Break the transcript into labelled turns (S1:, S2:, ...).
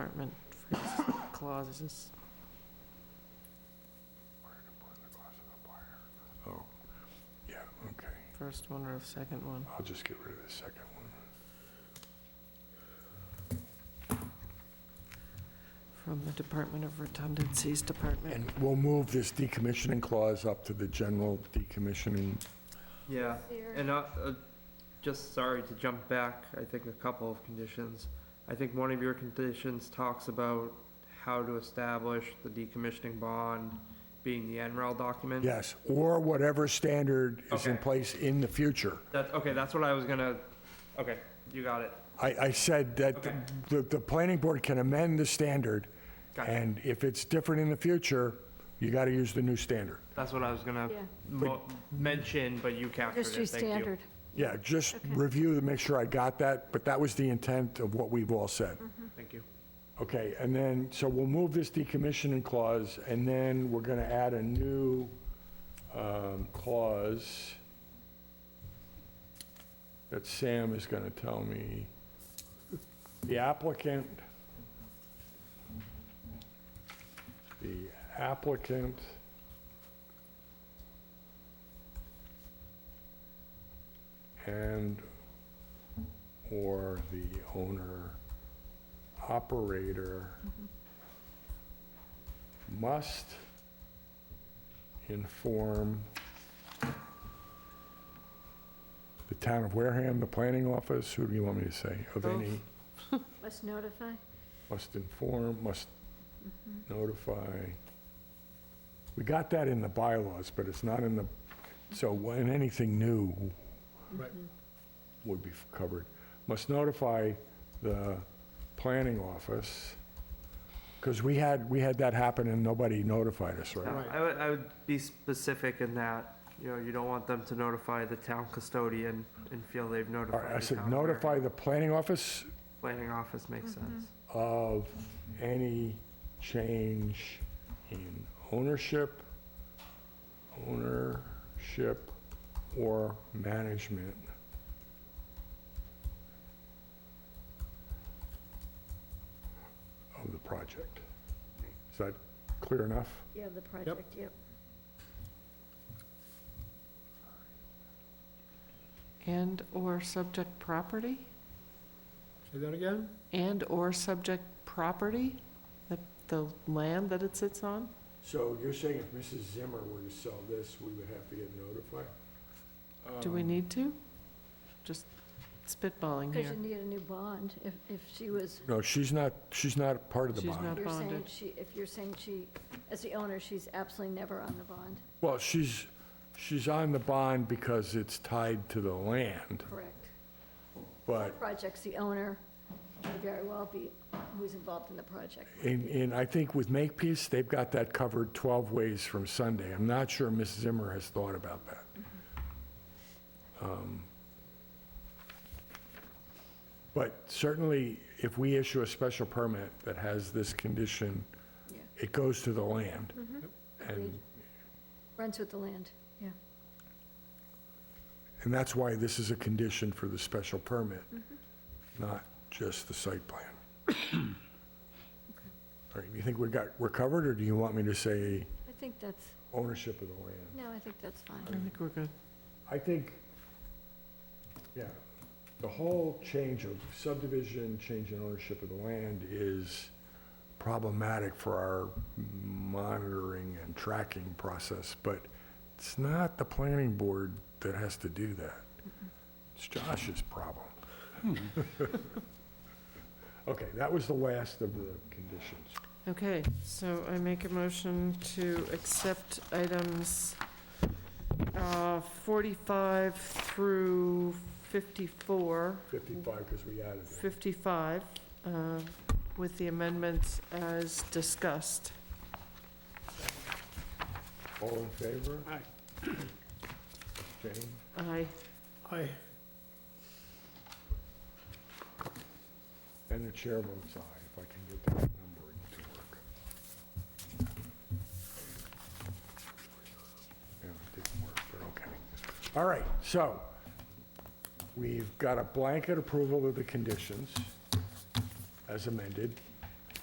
S1: department clauses.
S2: Oh, yeah, okay.
S1: First one or second one?
S2: I'll just get rid of the second one.
S1: From the Department of Redundancies Department.
S2: And we'll move this decommissioning clause up to the general decommissioning.
S3: Yeah,
S4: There-
S3: and uh, uh, just sorry to jump back, I think a couple of conditions. I think one of your conditions talks about how to establish the decommissioning bond being the NREL document.
S2: Yes, or whatever standard is in
S3: Okay.
S2: place in the future.
S3: That, okay, that's what I was gonna, okay, you got it.
S2: I, I said that
S3: Okay.
S2: the, the planning board can amend the standard,
S3: Gotcha.
S2: and if it's different in the future, you gotta use the new standard.
S3: That's what I was gonna
S4: Yeah.
S3: mo- mention, but you captured
S4: Industry
S3: it, thank you.
S4: standard.
S2: Yeah, just
S4: Okay.
S2: review to make sure I got that, but that was the intent of what we've all said.
S3: Thank you.
S2: Okay, and then, so we'll move this decommissioning clause, and then we're gonna add a new um, clause that Sam is gonna tell me. The applicant, the applicant and/or the owner operator must inform the town of Wareham, the planning office, who do you want me to say, of
S3: Both.
S2: any,
S4: Must notify.
S2: must inform, must notify. We got that in the bylaws, but it's not in the, so when anything new would be covered. Must notify the planning office, because we had, we had that happen and nobody notified us,
S3: Yeah,
S2: right?
S3: I would, I would be specific in that, you know, you don't want them to notify the town custodian and feel they've
S2: All right,
S3: notified
S2: I
S3: the
S2: said
S3: town clerk.
S2: notify the planning office
S3: Planning office makes
S4: Mm-hmm.
S3: sense.
S2: of any change in ownership, ownership or management. of the project. Is that clear enough?
S4: Yeah, the project, yep.
S1: And/or subject property?
S5: Say that again?
S1: And/or subject property? The, the land that it sits on?
S2: So you're saying if Mrs. Zimmer were to sell this, we would have to get notified?
S1: Do we need to? Just spitballing
S4: Because
S1: here.
S4: you need a new bond if, if she was,
S2: No, she's not, she's not part of the
S1: She's
S2: bond.
S1: not-
S4: you're saying
S1: bonded.
S4: she, if you're saying she, as the owner, she's absolutely never on the bond,
S2: Well, she's, she's on the bond because it's tied to the land,
S4: correct?
S2: but,
S4: Project's the owner, may very well be who's involved in the project.
S2: and, and I think with Makepeace, they've got that covered 12 ways from Sunday. I'm not sure Mrs. Zimmer has thought about that. Um, But certainly, if we issue a special permit that has this condition,
S4: Yeah.
S2: it goes to the land. And,
S4: Agreed. Runs with the land, yeah.
S2: and that's why this is a condition for the special permit, not just the site plan. All right, you think we got, we're covered, or do you want me to say
S4: I think that's,
S2: ownership of the land?
S4: no, I think that's
S1: I
S4: fine.
S1: think we're good.
S2: I think, yeah, the whole change of subdivision, change in ownership of the land is problematic for our monitoring and tracking process, but it's not the planning board that has to do that. It's Josh's problem. Okay, that was the last of the conditions.
S1: Okay, so I make a motion to accept items uh, 45 through 54,
S2: 55, because we added it.
S1: 55, uh, with the amendments as discussed.
S2: All in favor?
S5: Aye.
S2: Jane?
S1: I,
S5: Aye.
S2: And the chair votes aye, if I can get that numbering to work. Yeah, it didn't work, but okay. All right, so we've got a blanket approval of the conditions as amended.